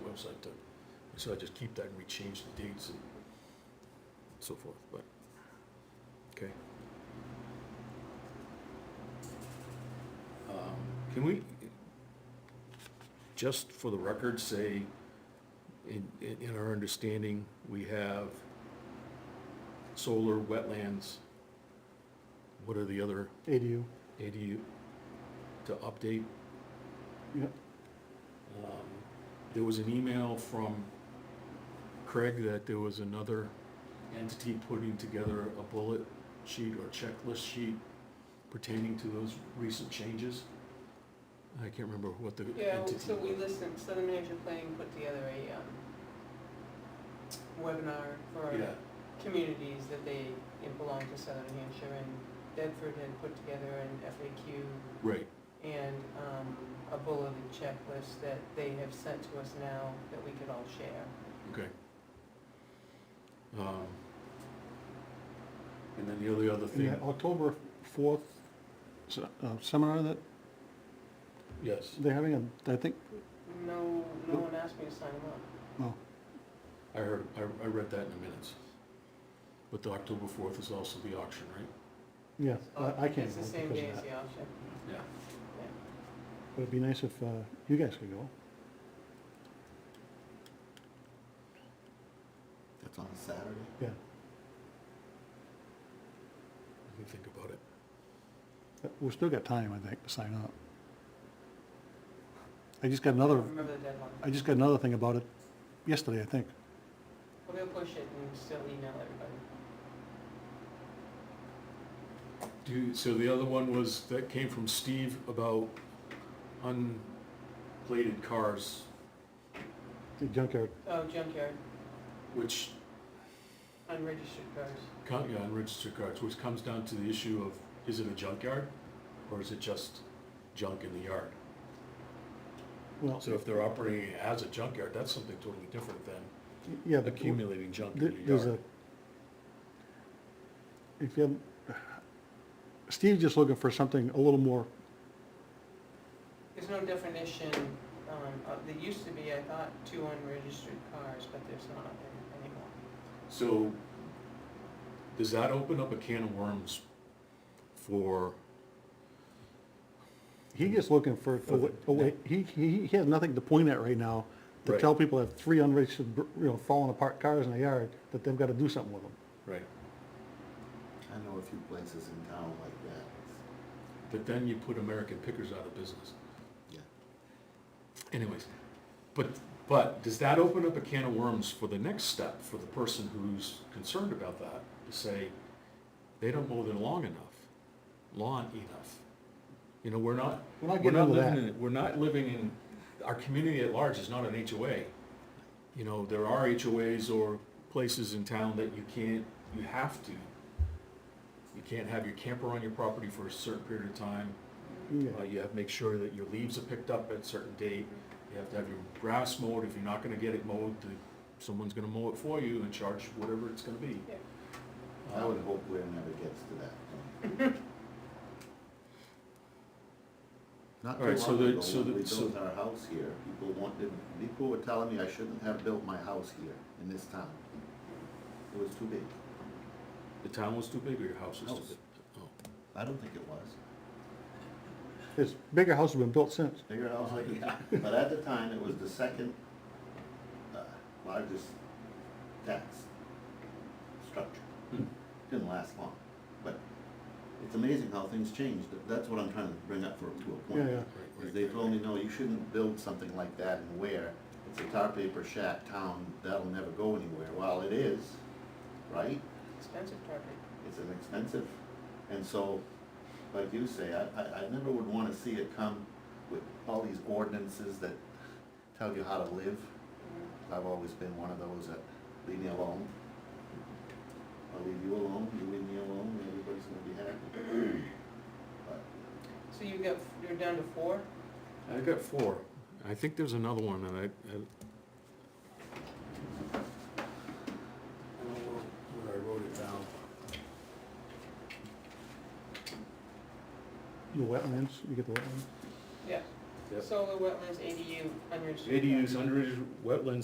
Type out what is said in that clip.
website to, so I just keep that and we change the dates and so forth, but, okay. Um, Can we, just for the record, say, in, in in our understanding, we have solar, wetlands, what are the other ADU. ADU to update? Yep. Um, There was an email from Craig that there was another entity putting together a bullet sheet or checklist sheet pertaining to those recent changes. I can't remember what the Yeah, entity. so we was. listened, Southern Manager Planning put together a um, webinar for Yeah, communities that they it belong to Southern New Hampshire, and Bedford had put together an FAQ right, and um, a bulleted checklist that they have sent to us now that we could all share. okay. Um, And then the other, other And thing, that October fourth uh, seminar that yes, they're having, and I think, No, no one asked me to sign them up. well, I heard, I, I read that in the minutes. But the October fourth is also the auction, right? yeah, I I can't It's go the because same of day as that. the auction. Yeah. But it'd be nice if uh, you guys could go. That's on Saturday. Yeah, Let me think about it. But we've Uh, still got time, I think, to sign up. I just got another, Remember the deadline. I just got another thing about it yesterday, I think. We're gonna push it and still email everybody. Do, you- so the other one was, that came from Steve about unplated cars, The junkyard, Oh, junkyard, which, unregistered cars. co- yeah, unregistered cars, which comes down to the issue of, is it a junkyard? Or is it just junk in the yard? well, So if they're operating as a junkyard, that's something totally different than yeah, but w- accumulating junk There- in your There's a, yard. if you, Steve's just looking for something a little more, There's no definition, um, of- there used to be, I thought, two unregistered cars, but there's not any- anymore. So, does that open up a can of worms for, he's just looking for, for what- a way- he, he, he has nothing to point at right now to Right. tell people that three unregistered, br- you know, falling apart cars in the yard, that they've got to do something with them. right, I know a few places in town like that. but then you put American Pickers out of business? Yeah. Anyways, but, but does that open up a can of worms for the next step for the person who's concerned about that? To say, they don't mow their lawn enough, lawn enough. You know, we're not, We're not we're getting not into living that. in, we're not living in, our community at large is not an HOA. You know, there are HOAs or places in town that you can't, you have to. You can't have your camper on your property for a certain period of time. Uh, Yeah, you have to make sure that your leaves are picked up at a certain date. You have to have your grass mowed. If you're not gonna get it mowed, the- someone's gonna mow it for you and charge whatever it's gonna be. Yeah. I would Um, hope Ware never gets to that point. Not All right, too so long the- ago, so when the- we so- built our house here, people wanted, people were telling me I shouldn't have built my house here in this town. It was too big. The town was too big or your house was too House. big? Oh. I don't think it was. This bigger house has been built since. Bigger house Oh, like, yeah, but at the time, it was the second uh, largest tax structure. Hmm. didn't last long, but it's amazing how things change. That- That's what I'm trying to bring up for, to a Yeah, point. Right, yeah. Is right, they right, told me, right. no, you shouldn't build something like that in Ware. It's a tar paper shack town, that'll never go anywhere. Well, it is, right? Expensive property. It's an expensive, and so, like you say, I, I, I never would wanna see it come with all these ordinances that tell you how to live. I've always been one of those that leave me alone. I'll leave you alone, you leave me alone, everybody's gonna be happy. But So you got, you're down to four? I got four. I think there's another one that I, I. I don't know where I wrote it down. The wetlands, you get the wetlands. Yeah. Yep. Solar wetlands, ADU, unregistered. ADUs, cars. unregistered wetlands,